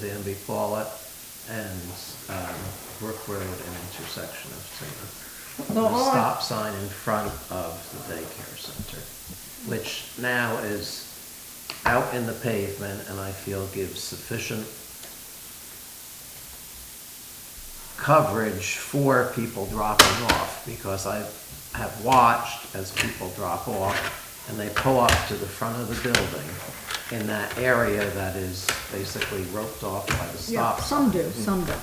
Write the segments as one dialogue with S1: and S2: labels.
S1: Danby Follett and um, Brook Road and intersection of Center.
S2: No, all
S1: The
S2: I-
S1: stop sign in front of the daycare center, which now is out in the pavement and I feel gives sufficient coverage for people dropping off because I have watched as people drop off and they pull up to the front of the building in that area that is basically roped off by the
S2: Yeah,
S1: stop. sign.
S2: some do, some don't.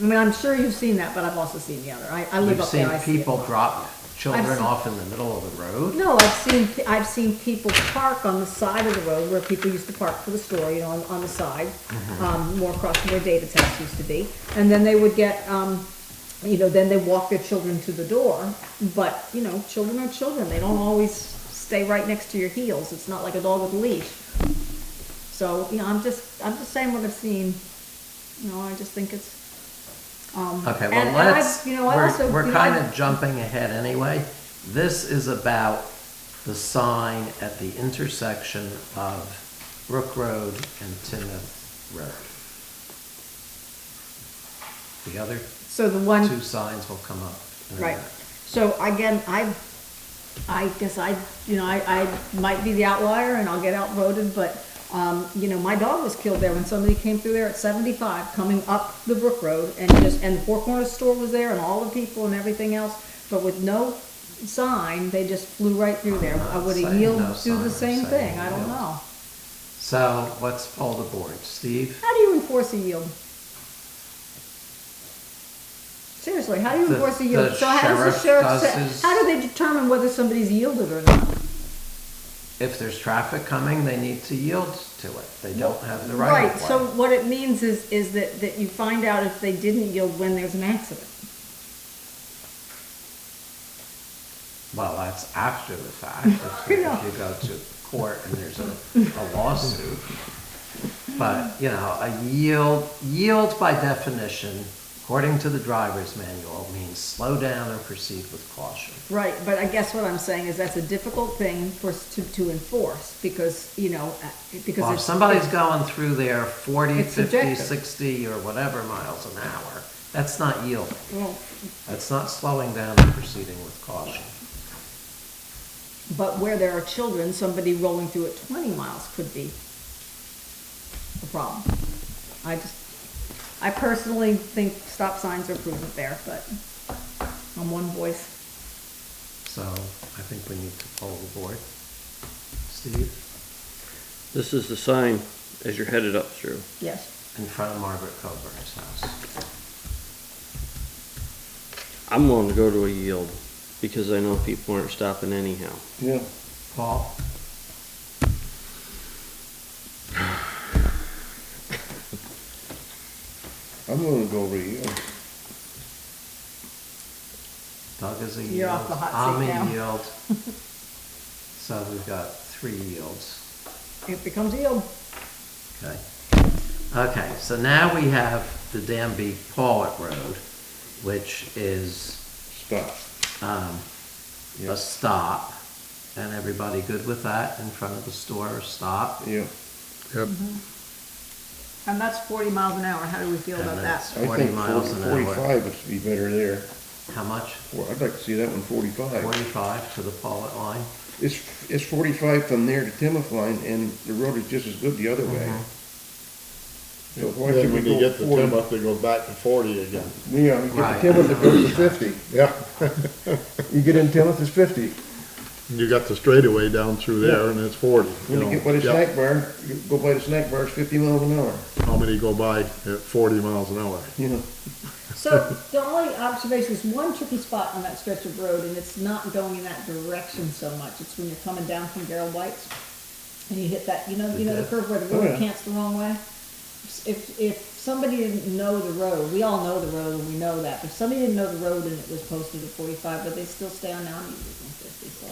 S2: I mean, I'm sure you've seen that, but I've also seen the other. I, I live
S1: You've
S2: up there,
S1: seen
S2: I see it.
S1: people drop children
S2: seen-
S1: off in the middle of the road?
S2: No, I've seen, I've seen people park on the side of the road where people used to park for the store, you know, on, on the side,
S1: Mm-hmm.
S2: um, more across from where David's house used to be. And then they would get, um, you know, then they walk their children to the door, but, you know, children are children. They don't always stay right next to your heels. It's not like a dog with a leash. So, you know, I'm just, I'm just saying what I've seen. You know, I just think it's, um.
S1: Okay,
S2: and-
S1: well,
S2: and I-
S1: let's,
S2: You know, I also.
S1: we're,
S2: you
S1: we're
S2: know, I-
S1: kind of jumping ahead anyway. This is about the sign at the intersection of Brook Road and Timoth Road. The other
S2: So the one.
S1: two signs will come up. in a
S2: Right.
S1: minute.
S2: So again, I, I guess I, you know, I, I might be the outlier and I'll get outvoted, but, um, you know, my dog was killed there when somebody came through there at seventy-five, coming up the Brook Road and just, and the Four Corners store was there and all the people and everything else, but with no sign, they just flew right through there. I would
S1: Saying
S2: have
S1: no
S2: yielded, do
S1: sign or
S2: the same
S1: saying
S2: thing, I don't
S1: yield.
S2: know.
S1: So let's poll the board. Steve?
S2: How do you enforce a yield? Seriously, how do you
S1: The-
S2: enforce a
S1: the
S2: yield? So how does the
S1: sheriff
S2: sheriff
S1: does
S2: say,
S1: his-
S2: how do they determine whether somebody's yielded or not?
S1: If there's traffic coming, they need to yield to it. They don't have the right of
S2: Right, so
S1: way.
S2: what it means is, is that, that you find out if they didn't yield when there's an accident.
S1: Well, that's after the fact. If you- if you go to court and there's a, a lawsuit. But, you know, a yield, yield by definition, according to the driver's manual, means slow down and proceed with caution.
S2: Right, but I guess what I'm saying is that's a difficult thing for, us to, to enforce, because, you know, uh, because.
S1: Well, if
S2: it's-
S1: somebody's going through there 40,
S2: It's
S1: 50,
S2: subjective.
S1: 60, or whatever miles an hour, that's not yielding.
S2: Well,
S1: That's not slowing down and proceeding with caution.
S2: But where there are children, somebody rolling through at twenty miles could be a problem. I just, I personally think stop signs are prudent there, but I'm one voice.
S1: So I think we need to poll the board. Steve,
S3: This is the sign as you're headed up through.
S2: Yes.
S1: in front of Margaret Coburn's house.
S3: I'm willing to go to a yield because I know people aren't stopping anyhow.
S4: Yeah,
S1: Paul?
S4: I'm gonna go over you.
S1: Doug is a yield.
S2: You're off the hot
S1: I'm
S2: seat now.
S1: a yield. So we've got three yields,
S2: It becomes a yield.
S1: okay? Okay, so now we have the Danby Pollock Road, which is
S4: Stop.
S1: um,
S4: Yeah.
S1: a stop. And everybody good with that in front of the store, stop?
S4: Yeah,
S3: Yep.
S2: And that's forty miles an hour, how do we feel
S1: And
S2: about
S1: that's
S2: that?
S4: I
S1: 40
S4: think
S1: miles
S4: 40
S1: an hour.
S4: Forty-five would be better there.
S1: How much?
S4: Well, I'd like to see that one forty-five.
S1: 45 to the Pollock line?
S4: It's, it's forty-five from there to Timoth Line, and the road is just as good the other way.
S1: Mm-hmm.
S4: So why
S5: Then
S4: should we
S5: when you
S4: go
S5: get to
S4: forty?
S5: Timoth, they go back to forty again.
S4: Yeah, you
S1: Right.
S4: get to Timoth, it goes to fifty.
S5: Yeah.
S4: You get in Timoth, it's fifty.
S5: You got the straightaway down through there and it's forty.
S4: When you
S5: know.
S4: get by the
S5: Yep.
S4: snack bar, you go by the snack bar, it's fifty miles an hour,
S5: How many go by at forty miles an hour?
S4: you know.
S2: So the only observation is one tricky spot on that stretch of road, and it's not going in that direction so much, it's when you're coming down from Gerald White's. And you hit that, you know, you know the curve where the
S4: Oh,
S2: road
S4: yeah.
S2: cants the wrong way? If, if somebody didn't know the road, we all know the road and we know that, but if somebody didn't know the road and it was posted at forty-five, but they still stay on now, you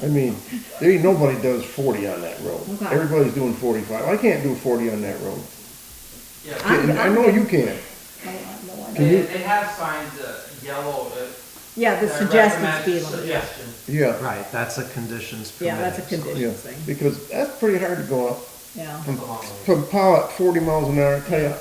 S4: I mean, there ain't nobody does forty on that road.
S2: Okay.
S4: Everybody's doing forty-five. I can't do forty on that road.
S2: I'm-
S4: I know you can't.
S2: fifty-five.
S6: They, they have signs, uh, yellow, uh.
S2: Yeah, the
S6: that
S2: suggested
S6: recommend-
S2: speed limit,
S6: Suggestion.
S4: Yeah.
S1: Right, that's a conditions permitted.
S2: yeah, that's a
S4: Yeah,
S2: condition thing,
S4: because that's pretty hard to go up
S2: yeah.
S4: from Pollock forty miles an hour. I tell you,